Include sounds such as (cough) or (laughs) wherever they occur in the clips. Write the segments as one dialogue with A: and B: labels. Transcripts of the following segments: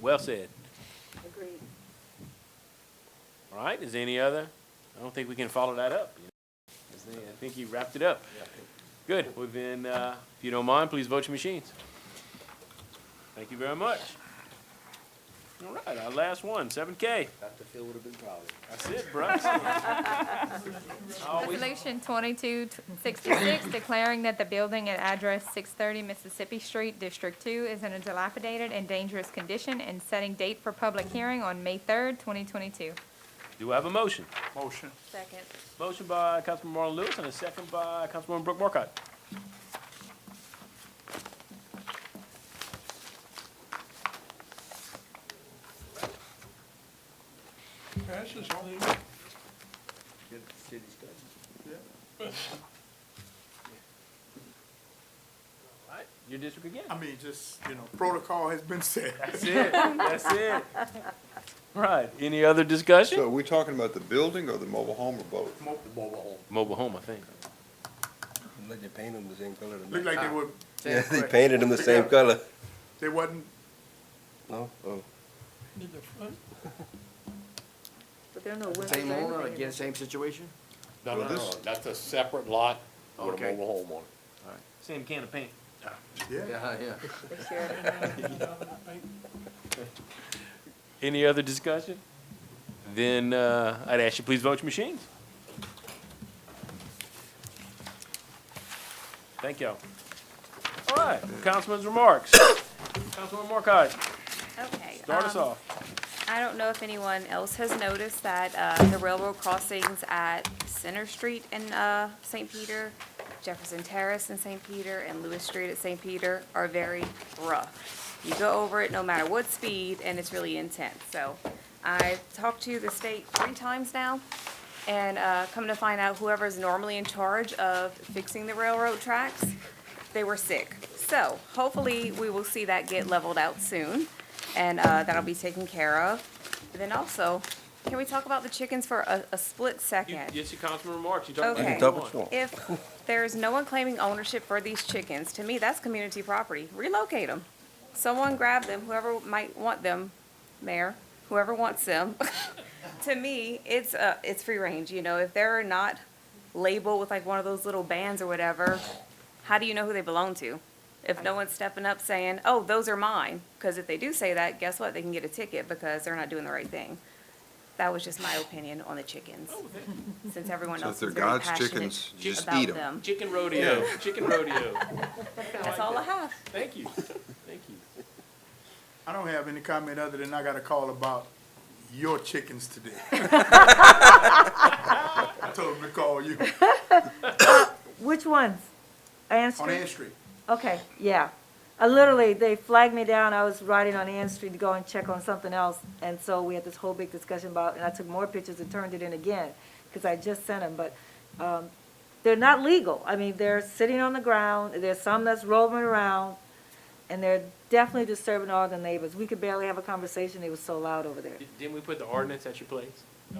A: Well said.
B: Agreed.
A: All right, is there any other? I don't think we can follow that up. you know. Is there- I think you wrapped it up. Good, well then, uh, if you don't mind, please vote your machines. Thank you very much. All right, our last one, seven K.
C: Dr. Phil would have been proud.
A: That's it, Bryce. (laughs) Always-
D: Resolution twenty-two sixty-six declaring that the building at address six thirty Mississippi Street, District Two, is in a dilapidated and dangerous condition and setting date for public hearing on May third, twenty twenty-two.
A: Do I have a motion?
E: Motion.
B: Second.
A: Motion by Councilman Marlon Lewis and a second by Councilwoman Brooke Markcott.
E: Passes on
C: Good city's good.
A: All right, your district again.
E: I mean, just, you know, protocol has been
F: (laughs)
E: set.
A: That's it, that's it. Right, any other discussion?
G: So are we talking about the building or the mobile home or both?
C: The mobile
A: Mobile home, I think.
H: Like they painted them the same color. to me.
E: Looked
C: Ah,
E: like they were,
H: Yeah, they painted them the same color.
E: they wasn't,
H: No? Oh.
B: But there are no
C: home.
B: windows
C: Same
B: or
C: owner,
B: anything.
C: again, same situation?
F: No, no,
G: Well,
F: no,
G: this-
F: no, that's a separate lot with a
C: Okay.
F: mobile home on it.
A: Same can of paint.
E: yeah.
C: yeah.
B: They share everything.
A: Any other discussion? Then uh, I'd ask you, please vote your machines. Thank y'all. All right, Councilman's remarks. Councilman Markcott,
I: Okay.
A: start us
I: um,
A: off.
I: I don't know if anyone else has noticed that uh, the railroad crossings at Center Street in uh, St. Peter, Jefferson Terrace in St. Peter, and Lewis Street at St. Peter are very rough. You go over it no matter what speed, and it's really intense. So I've talked to the state three times now, and uh, come to find out whoever's normally in charge of fixing the railroad tracks, they were sick. So hopefully, we will see that get leveled out soon, and uh, that'll be taken care of. Then also, can we talk about the chickens for a, a split
A: You-
I: second?
A: It's your Councilman remarks. You talked about
I: Okay.
A: what
I: You
A: you
I: can
H: talk what
A: want.
H: you want.
I: If there's no one claiming ownership for these chickens, to me, that's community property. Relocate them. Someone grab them, whoever might want them, mayor, whoever wants them. (laughs) To me, it's, uh, it's free range, you know, if they're not labeled with like one of those little bands or whatever, how do you know who they belong to? If no one's stepping up saying, oh, those are mine, because if they do say that, guess what? They can get a ticket because they're not doing the right thing. That was just my opinion on the chickens, since everyone
G: So if
I: else
G: they're
I: is very
G: God's
I: passionate
G: chickens, you just
I: about
G: eat 'em.
I: them.
A: Chicken rodeo, chicken rodeo.
I: That's all I have.
A: (laughs) Thank you, thank you.
E: I don't have any comment other than I got a call about your chickens today. (laughs) I told them to call you
B: Which ones? Ann
E: on Ann
B: Street?
E: Street.
B: Okay, yeah. I literally, they flagged me down. I was riding on Ann Street to go and check on something else. And so we had this whole big discussion about, and I took more pictures and turned it in again, because I just sent them, but, um, they're not legal. I mean, they're sitting on the ground. There's some that's rolling around. And they're definitely disturbing all the neighbors. We could barely have a conversation. It was so loud over there.
A: Di- Didn't we put the ordinance at your place?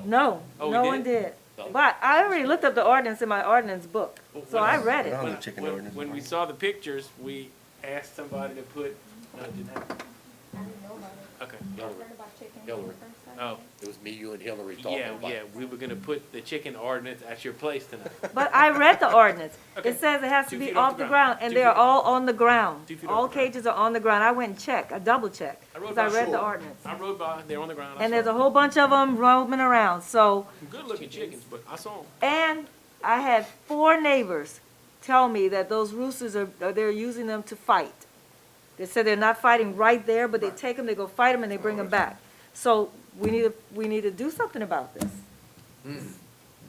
B: No,
A: Oh, we Oh.
B: no one did. But I already looked up the ordinance in my ordinance book,
A: Well,
B: so
A: when
B: I
A: I-
B: read it.
H: Oh,
A: When
H: the chicken
A: when-
H: ordinance.
A: When we saw the pictures, we asked somebody to put, no, it didn't happen. Okay,
F: Hillary, Hillary.
A: oh,
F: It was me, you, and Hillary talking
A: yeah,
F: about.
A: yeah, we were gonna put the chicken ordinance at your place
F: (laughs)
A: tonight.
B: But I read the ordinance.
A: (laughs) Okay.
B: It says it has
A: Two
B: to be
A: feet off
B: off
A: the
B: the
A: ground.
B: ground, and
A: Two
B: they are
A: feet.
B: all on the ground.
A: Two feet off
B: All
A: the ground.
B: cages are on the ground. I went and checked, I double checked,
A: I rode
B: because I
A: by
B: read the
A: Shore.
B: ordinance.
A: I rode by, they're on the ground, I
B: And
A: saw
B: there's a
A: them.
B: whole bunch of them roaming around, so,
A: Good looking chickens, but I saw them.
B: and I had four neighbors tell me that those roosters are, are- they're using them to fight. They said they're not fighting right there, but they take them, they go fight them, and they bring them back. So we need to, we need to do something about this.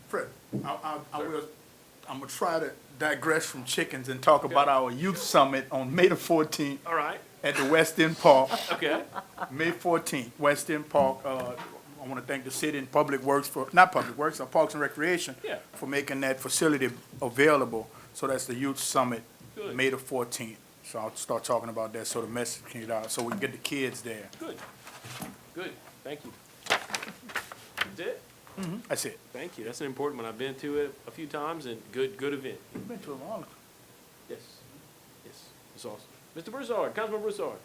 E: Fred, I, I, I will, I'm gonna try to digress from chickens and talk about our youth summit on May the fourteenth
A: All right,
E: at the West End Park.
B: (laughs)
A: okay,
E: May fourteenth, West End Park, uh, I wanna thank the city and Public Works for, not Public Works, uh, Parks and Recreation.
A: Yeah.
E: For making that facility available, so that's the youth summit,
A: Good.
E: May the fourteenth. So I'll start talking about that, so the message can get out, so we can get the kids there.
A: good, good, thank you. That's it?
E: That's it.
A: Thank you, that's an important one, I've been to it a few times and good, good event.
E: Been to a long-
A: Yes, yes, it's awesome. Mr. Broussard, Councilman Broussard.